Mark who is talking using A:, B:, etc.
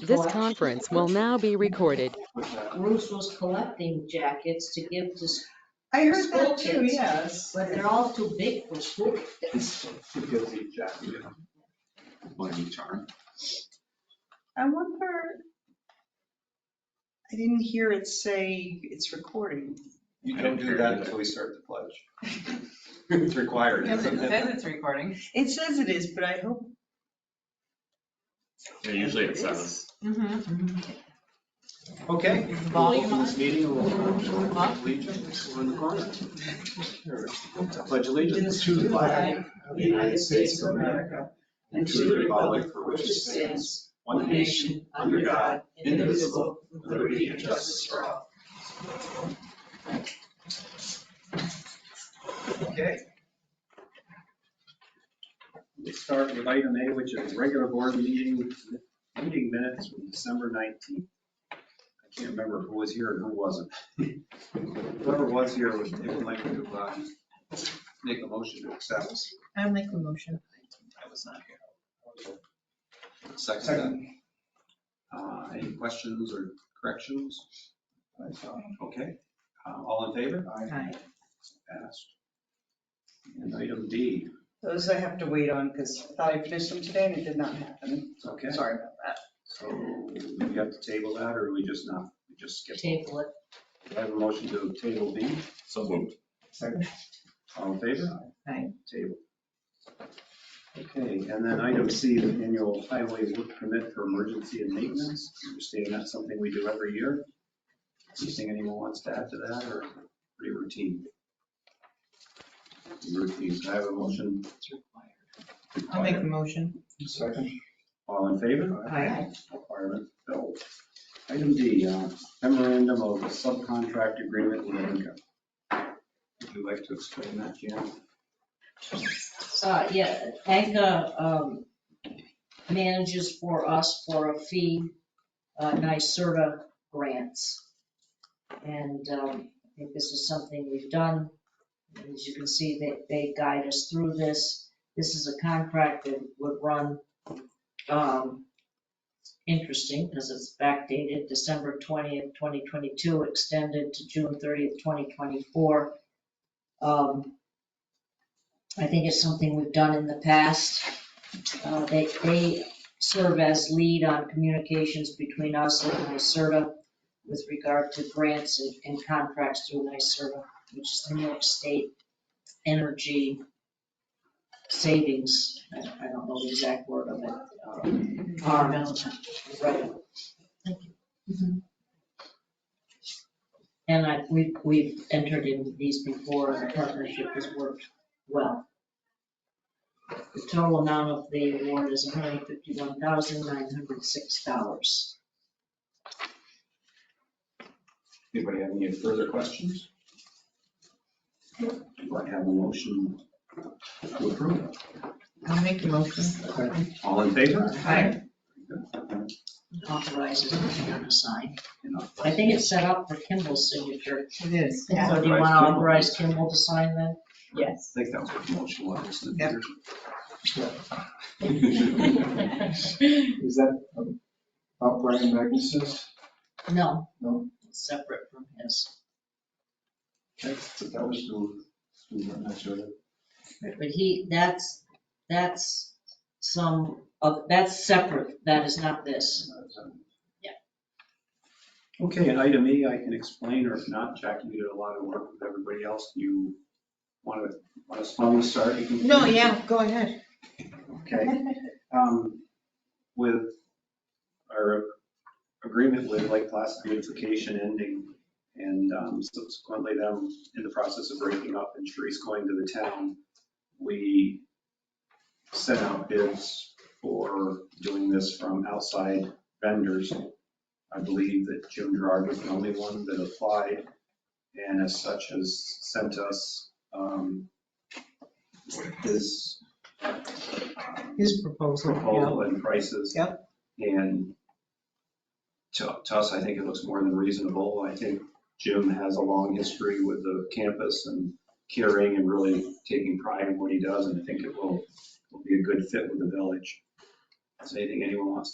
A: This
B: Correct.
A: conference will now be recorded.
B: Bruce was collecting jackets to give to, s-
C: I heard
B: School
C: that too,
B: kids.
C: yes.
B: but they're all too big for school kids.
D: One each arm.
C: I wonder, I didn't hear it say it's recording.
E: You don't do that until we start the pledge. It's required.
F: Because it
E: isn't
F: says
E: it?
F: it's recording.
C: It says it is, but I hope,
D: Yeah, usually it's uh, us.
E: Okay, we'll open this meeting, we'll pledge allegiance, we're in the corner. Pledge allegiance to the flag of the United States of America and to the republic for which it stands, one nation, under God, indivisible, with liberty and justice for all. Okay. We'll start with item A, which is regular board meeting, meeting minutes from December 19th. I can't remember who was here and who wasn't. Whoever was here would, they would like to uh, make a motion to accept.
F: I'll make a motion.
E: I was not here. Second. that. Uh, Any questions or corrections? Okay, Uh, all in favor?
F: Aye.
E: Passed. And item D,
C: those I have to wait on because I thought I finished them today and it did not happen.
E: okay,
C: Sorry about that.
E: so do we have to table that or we just not, we just skip?
B: Table it.
E: Do I have a motion to table B?
D: So moved.
E: All in favor?
F: Aye.
E: Table. Okay, and then item C, the annual highway work permit for emergency and maintenance. I Understand that's something we do every year. Anything anyone wants to add to that or pretty routine? Routine, I have a motion.
F: I'll make a motion.
E: All in favor?
F: Aye.
E: Requirement filled. Item D, uh, memorandum of subcontract agreement with Inca. Would you like to explain that, Jan?
B: Uh, yeah, Anka, um, manages for us for a fee, uh, NYSERDA grants. And, um, I think this is something we've done. As you can see, they, they guide us through this. This is a contract that would run, um, interesting because it's backdated December twentieth, twenty twenty-two, extended to June thirtieth, twenty twenty-four. Um, I think it's something we've done in the past. Uh, They, they serve as lead on communications between us and NYSERDA with regard to grants and- and contracts through NYSERDA, which is the New York State Energy Savings, I I don't know the exact word of it. um, Right. And I, we, we've entered into these before, and the partnership has worked well. The total amount of the award is $151,906.
E: Anybody have any further questions? Do I have a motion to approve?
F: I'll make a motion.
E: All in favor?
F: Aye.
B: Authorizes Michigan to sign.
E: And I'll-
B: I think it's set up for Kimball's signature.
F: It is.
B: So do you want to authorize Kimball to sign then?
F: Yes.
E: I think that was what the motion was. wasn't it, Peter?
G: Is that um, about Brian Magnus's?
B: No.
G: No.
B: It's Separate from his.
G: That's, that was the, I'm not sure.
B: But he, that's, that's some, of- that's separate. That is not this.
E: Okay, and item E, I can explain, or if not, Jack, you did a lot of work with everybody else. You want to, want us to start? You can-
F: No, yeah, go ahead.
E: Okay. Um, With our agreement with Lake Placid beautification ending and um, subsequently them in the process of breaking up and Sharice going to the town, we sent out bids for doing this from outside vendors. I believe that Jim Gerard was the only one that applied and as such has sent us um, his
F: His proposal. yeah.
E: proposal and prices. Yep. And to, to us, I think it looks more than reasonable. I think Jim has a long history with the campus and caring and really taking pride in what he does, and I think it will, will be a good fit with the village. Is there anything anyone wants